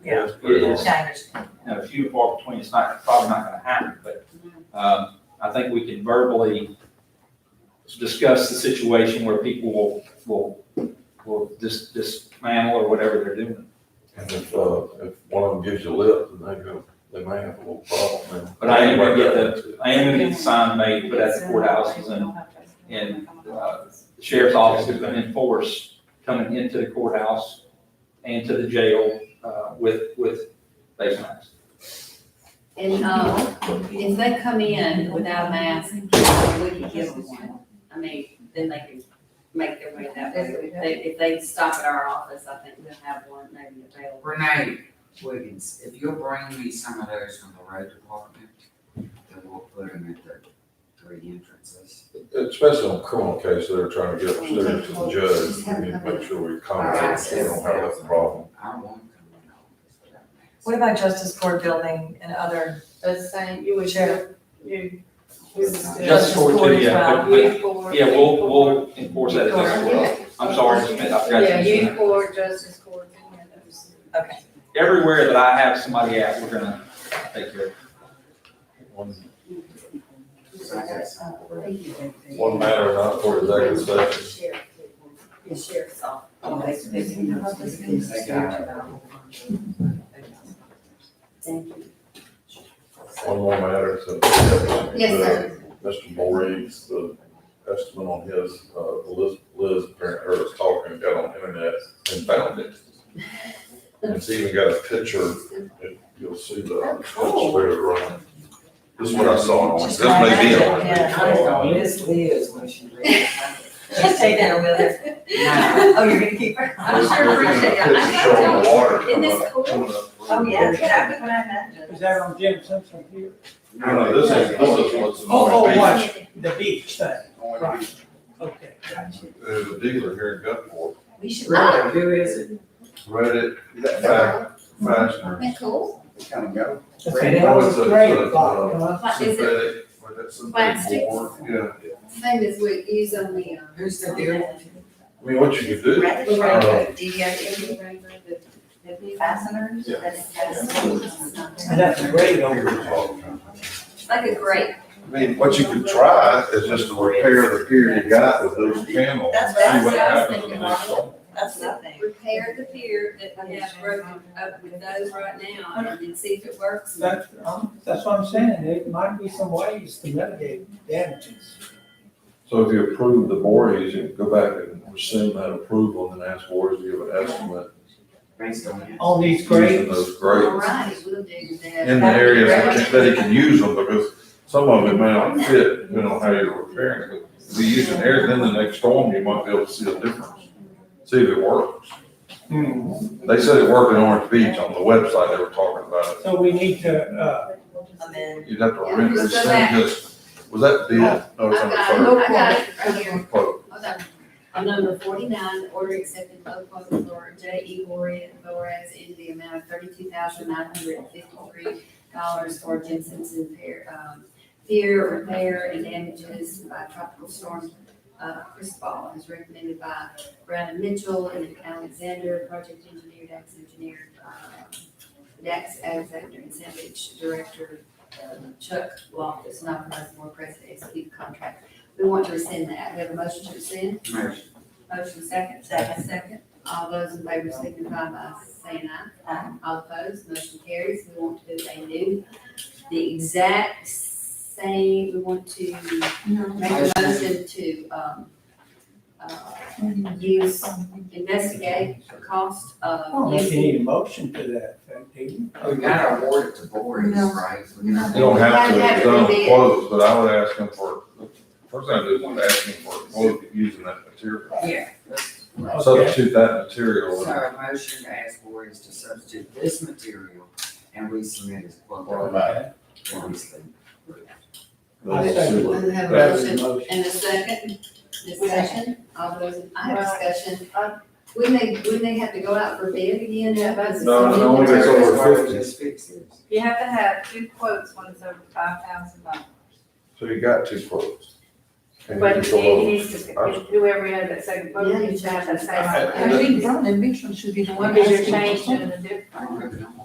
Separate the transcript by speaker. Speaker 1: Yeah,
Speaker 2: Yes,
Speaker 1: it
Speaker 2: but-
Speaker 1: is, I understand.
Speaker 2: you know, few and far between, it's not, probably not gonna happen, but, um, I think we can verbally discuss the situation where people will, will, will dis- dismantle or whatever they're doing.
Speaker 3: And if, uh, if one of them gives you lip, then they go, they may have a little problem then.
Speaker 2: But I am gonna get the, I am gonna get the sign made, put at the courthouses and and, uh, the sheriff's office is gonna enforce coming into the courthouse and to the jail, uh, with, with face masks.
Speaker 4: And, um, if they come in without a mask, we could give them one. I mean, then they can make their way that way. If they, if they stop at our office, I think we'll have one maybe available.
Speaker 5: Renee Wiggins, if you'll bring me some of those from the road department, then we'll put them at the three entrances.
Speaker 3: Especially on criminal cases, they're trying to get upstairs to the judge, we need to make sure we accommodate, so we don't have that problem.
Speaker 5: I won't come in the office without masks.
Speaker 6: What about justice court building and other,
Speaker 7: The same, you would
Speaker 6: Sure.
Speaker 7: share. You. you would still-
Speaker 2: Just for,
Speaker 6: Just for
Speaker 2: the, yeah,
Speaker 6: as
Speaker 2: but,
Speaker 7: Youth board.
Speaker 2: but, yeah, we'll, we'll enforce that as well. I'm sorry, Smith, I've got you.
Speaker 7: Yeah, youth court, justice court, and yeah, those.
Speaker 6: okay.
Speaker 2: everywhere that I have somebody at, we're gonna take care of. it.
Speaker 3: One-
Speaker 5: So I got some for it.
Speaker 3: One matter not for the executive session.
Speaker 4: The sheriff's office.
Speaker 6: Oh,
Speaker 5: They got it.
Speaker 4: Thank you.
Speaker 3: One more matter, so. Yes,
Speaker 7: sir.
Speaker 3: Mr. Voorhees, the estimate on his, uh, Liz, Liz apparently heard us talking, got on the internet and found it. And It's even got a picture, if you'll see the, it's there, right? This is what I saw, this may be on.
Speaker 5: Yeah, Miss Liz, when she reads.
Speaker 6: Just take that with her.
Speaker 5: No.
Speaker 6: Oh, you're gonna keep her?
Speaker 4: I'm sure
Speaker 3: There's a Picture showing the water coming up. coming up.
Speaker 6: Oh, yeah, that was what I meant.
Speaker 8: Is that on Jim Simpson here?
Speaker 3: No, no, this is, this is what's.
Speaker 8: Oh, oh, watch, the beach thing,
Speaker 3: There's
Speaker 8: okay.
Speaker 3: a dealer here in Gulfport,
Speaker 4: We should.
Speaker 5: Really, who is it?
Speaker 3: read it, fa- fastener.
Speaker 4: Isn't that cool?
Speaker 3: No, Oh, it's a- it's a, uh,
Speaker 4: Like, is it
Speaker 3: synthetic, or that's some big
Speaker 4: Plastics?
Speaker 3: board, yeah.
Speaker 4: same as we use on the, um,
Speaker 5: Who's the dealer?
Speaker 3: I mean, what you could do,
Speaker 6: Right,
Speaker 4: the
Speaker 3: right,
Speaker 4: rainbow,
Speaker 3: the
Speaker 4: the rainbow, the- the
Speaker 6: Fasteners,
Speaker 3: Yeah.
Speaker 8: And that's a
Speaker 3: uh,
Speaker 8: great over.
Speaker 4: Like a grape.
Speaker 3: I mean, what you could try is just to repair the pier you got with those panels.
Speaker 6: That's-
Speaker 3: see
Speaker 4: that's what I was
Speaker 3: happens
Speaker 4: thinking,
Speaker 3: the next
Speaker 4: Mark.
Speaker 3: one.
Speaker 6: That's the thing.
Speaker 4: Repair the pier that we have broken up with those right now and then see if it works.
Speaker 8: That's, um, that's what I'm saying, there might be some ways to mitigate damages.
Speaker 3: So if you approve the Voorhees, you can go back and rescind that approval and then ask Voorhees to give an estimate
Speaker 5: Based on it.
Speaker 8: On these
Speaker 3: using
Speaker 8: grades,
Speaker 3: those
Speaker 4: All
Speaker 3: grades
Speaker 4: right, we'll do that.
Speaker 3: in the areas that can- that he can use them, because some of it may not fit, depending on how you're repairing it. If you use an air, then the next storm, you might be able to see a difference, see if it works.
Speaker 8: Hmm.
Speaker 3: They said it worked in Orange Beach on the website, they were talking about
Speaker 8: so we need to, uh,
Speaker 6: Amen.
Speaker 3: it. You'd have to
Speaker 4: Yeah,
Speaker 3: rent
Speaker 4: so
Speaker 3: this
Speaker 4: that-
Speaker 3: thing, just, was that the, no,
Speaker 4: I've got, it.
Speaker 3: it's on
Speaker 4: I got it right here.
Speaker 3: the quote.
Speaker 4: Hold on. Oh, On number forty-nine, order accepted low quote from Laura J. E. Warren, Boras, in the amount of thirty-two thousand nine hundred and fifty-three dollars for Jim Simpson pair, um, fear, repair, and damages by tropical storm, uh, Chris Ball, as recommended by Brandon Mitchell and Alexander, project engineer, Dax engineer, uh, Dax Alexander and Savage, director, uh, Chuck Loftus, not present, more present, execute contract we want to rescind that. We have a motion to rescind.
Speaker 5: Motion.
Speaker 4: Motion second. Second. Second. All those in favor signify by saying aye. Aye. All opposed, motion carries. We want to do a new, the exact same, we want to make a motion to, um, uh, use, investigate the cost
Speaker 8: I don't
Speaker 4: of
Speaker 8: think you
Speaker 4: using.
Speaker 8: need a motion to that, effect, do you?
Speaker 5: We gotta award it to Boris,
Speaker 6: No.
Speaker 5: right? We gotta-
Speaker 3: You don't have to,
Speaker 4: Have
Speaker 3: it's
Speaker 4: it
Speaker 3: on the
Speaker 4: reviewed.
Speaker 3: quotes, but I would ask him for, first thing I do is ask him for a quote using that material.
Speaker 5: Yeah.
Speaker 8: Okay.
Speaker 3: Substitute that material
Speaker 5: So
Speaker 3: with
Speaker 5: a motion to ask Boris to substitute this material and we submit his quote. Obviously.
Speaker 8: I second
Speaker 3: those.
Speaker 4: We have a
Speaker 3: That's-
Speaker 4: motion and a second. Discussion, all those, I have discussion. Wouldn't they, wouldn't they have to go out for bid again?
Speaker 3: No, no, no, it's
Speaker 5: Material
Speaker 3: over
Speaker 5: as well as
Speaker 3: 50.
Speaker 5: just fix it.
Speaker 7: You have to have two quotes, one is over five thousand dollars.
Speaker 3: So you got two quotes. And
Speaker 7: But
Speaker 3: control over-
Speaker 7: he needs to, whoever had that second vote needs to have that
Speaker 3: I-
Speaker 7: same.
Speaker 3: I-
Speaker 7: vote.
Speaker 6: Actually, Brown and Mitchell should be the one
Speaker 7: What is your
Speaker 6: asking for
Speaker 7: change
Speaker 6: something.
Speaker 7: in the difference?
Speaker 5: I'm working on it.